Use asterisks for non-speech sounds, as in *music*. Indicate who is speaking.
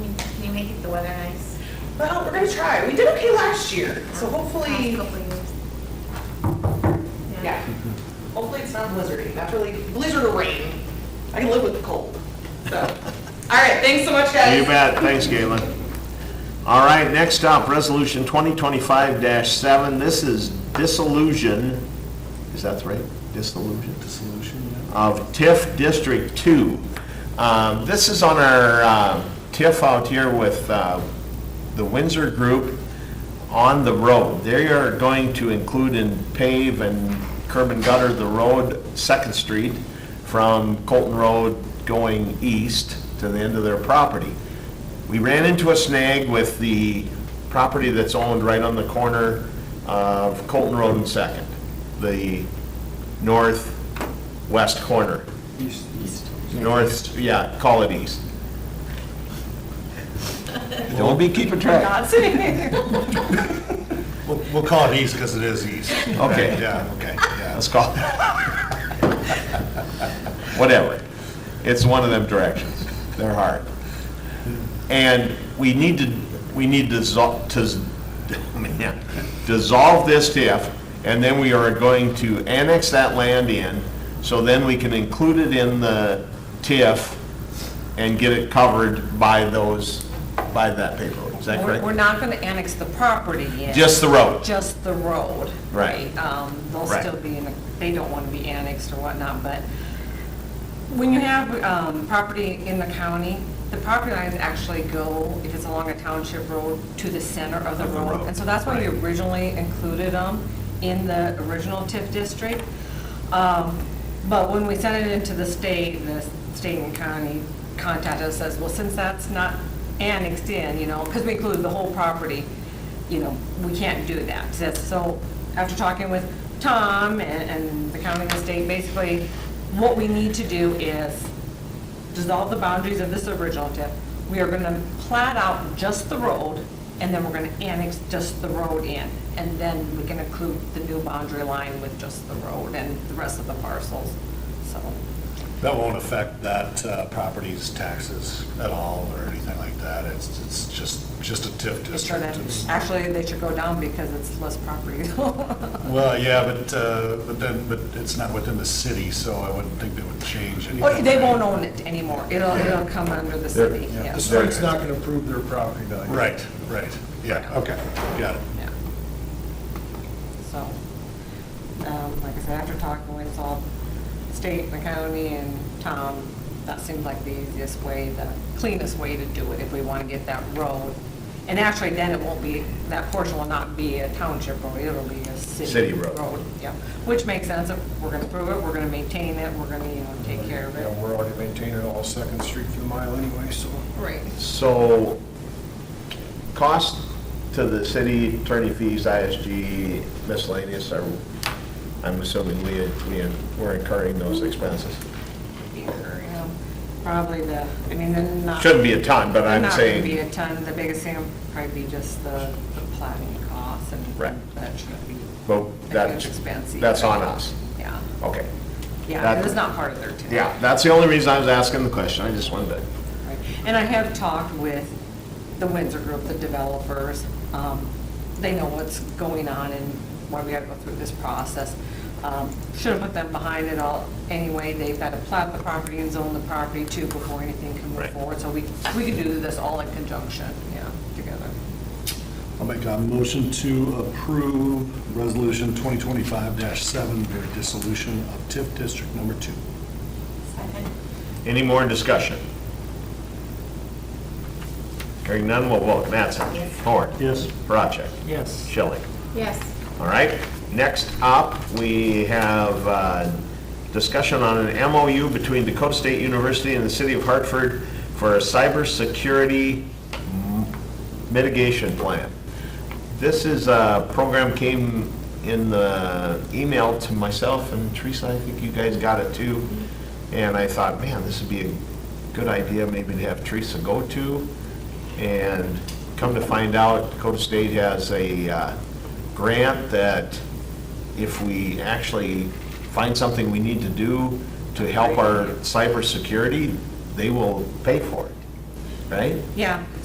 Speaker 1: weather nice?
Speaker 2: Well, oh, we're gonna try. We did okay last year, so hopefully,
Speaker 1: Last couple of years.
Speaker 2: yeah. Hopefully it's not blizzardy, not really blizzard or rain. I can live with the cold, so. All right, thanks so much, guys.
Speaker 3: You bet, thanks Galen. All right, next up, Resolution 2025-7, this is disillusion, is that right? Disillusion? Dissolution, Of TIF District 2. Um, This is on our uh, TIF out here with uh, the Windsor Group on the road. They are going to include and pave and curb and gutter the road, Second Street, from Colton Road going east to the end of their property. We ran into a snag with the property that's owned right on the corner of Colton Road and Second, the northwest corner. East. North, yeah, call it east.
Speaker 4: Don't be keeping track.
Speaker 2: Not sitting *laughs* there.
Speaker 5: We'll we'll call it east because it is east.
Speaker 3: Okay.
Speaker 5: Yeah, okay, yeah.
Speaker 3: Let's call it. Whatever. It's one of them directions. They're hard. And we need to, we need to dissolve, to, s- *laughs* man, dissolve this TIF, and then we are going to annex that land in, so then we can include it in the TIF and get it covered by those, by that paperwork. Is that
Speaker 6: We're we're
Speaker 3: correct?
Speaker 6: not going to annex the property yet.
Speaker 3: Just the road.
Speaker 6: Just the road.
Speaker 3: Right.
Speaker 6: Um, They'll
Speaker 3: Right.
Speaker 6: still be in, a- they don't want to be annexed or whatnot, but when you have um, property in the county, the property lines actually go, if it's along a township road, to the center of the
Speaker 3: Of the road,
Speaker 6: road. And so that's why we
Speaker 3: right.
Speaker 6: originally included them in the original TIF district. Um, But when we sent it into the state, the state and county contacted us, says, well, since that's not annexed in, you know, because we included the whole property, you know, we can't do that. So- So after talking with Tom and and the county and the state, basically, what we need to do is dissolve the boundaries of this original TIF. We are going to plat out just the road, and then we're going to annex just the road in. And then we can include the new boundary line with just the road and the rest of the parcels, so.
Speaker 5: That won't affect that uh, property's taxes at all or anything like that. It's, it's just, just a TIF
Speaker 6: it's sure
Speaker 5: district.
Speaker 6: that-
Speaker 5: It's-
Speaker 6: Actually, they should go down because it's less property. *laughs*
Speaker 5: Well, yeah, but, uh, but then, but it's not within the city, so I wouldn't think they would change anything.
Speaker 6: Well, They won't own it anymore. It'll, it'll come under the city, yeah.
Speaker 7: The state's not going to approve their property value.
Speaker 5: Right, right, yeah, okay, got it.
Speaker 6: Yeah. So, um, like I said, after talking with all state and the county and Tom, that seemed like the easiest way, the cleanest way to do it if we want to get that road. And actually, then it won't be, that portion will not be a township road, it'll be a
Speaker 3: City
Speaker 6: city
Speaker 3: road.
Speaker 6: road. Yeah, which makes sense. If we're going to prove it, we're going to maintain it, we're going to, you know, take care of
Speaker 7: Yeah,
Speaker 6: it.
Speaker 7: we're already maintaining all Second Street for the mile anyway, so.
Speaker 6: Right.
Speaker 3: So, cost to the city, attorney fees, ISG, miscellaneous, are, I'm assuming we, we, we're incurring those expenses.
Speaker 6: Yeah, Probably the, I mean, they're not.
Speaker 3: Shouldn't be a ton, but I'm
Speaker 6: Not gonna be
Speaker 3: saying,
Speaker 6: a ton, the biggest thing will probably be just the, the plating costs and.
Speaker 3: Right.
Speaker 6: That should be.
Speaker 3: Well, that's-
Speaker 6: A huge expense.
Speaker 3: that's on us.
Speaker 6: Yeah,
Speaker 3: okay.
Speaker 6: yeah,
Speaker 3: That-
Speaker 6: it was not part of their TIF.
Speaker 3: Yeah, that's the only reason I was asking the question, I just wanted to.
Speaker 6: Right. And I have talked with the Windsor Group, the developers. Um, They know what's going on and why we gotta go through this process. Should have put them behind it all anyway. They've got to plat the property and zone the property too before anything can move
Speaker 3: Right.
Speaker 6: forward. So we, we could do this all in conjunction, yeah, together.
Speaker 5: I'll make a motion to approve Resolution 2025-7, for dissolution of TIF District Number Two.
Speaker 1: Second.
Speaker 3: Any more discussion? Hearing none, we'll vote. Mattson? Horn? Yes. Parachek? Yes. Schilling?
Speaker 1: Yes.
Speaker 3: All right, next up, we have uh, discussion on an MOU between Dakota State University and the City of Hartford for a cybersecurity m- mitigation plan. This is a program came in the email to myself and Teresa, I think you guys got it too. And I thought, man, this would be a good idea maybe to have Teresa go to. And come to find out, Dakota State has a uh, grant that if we actually find something we need to do to help our cybersecurity, they will pay for it, right?
Speaker 6: Yeah,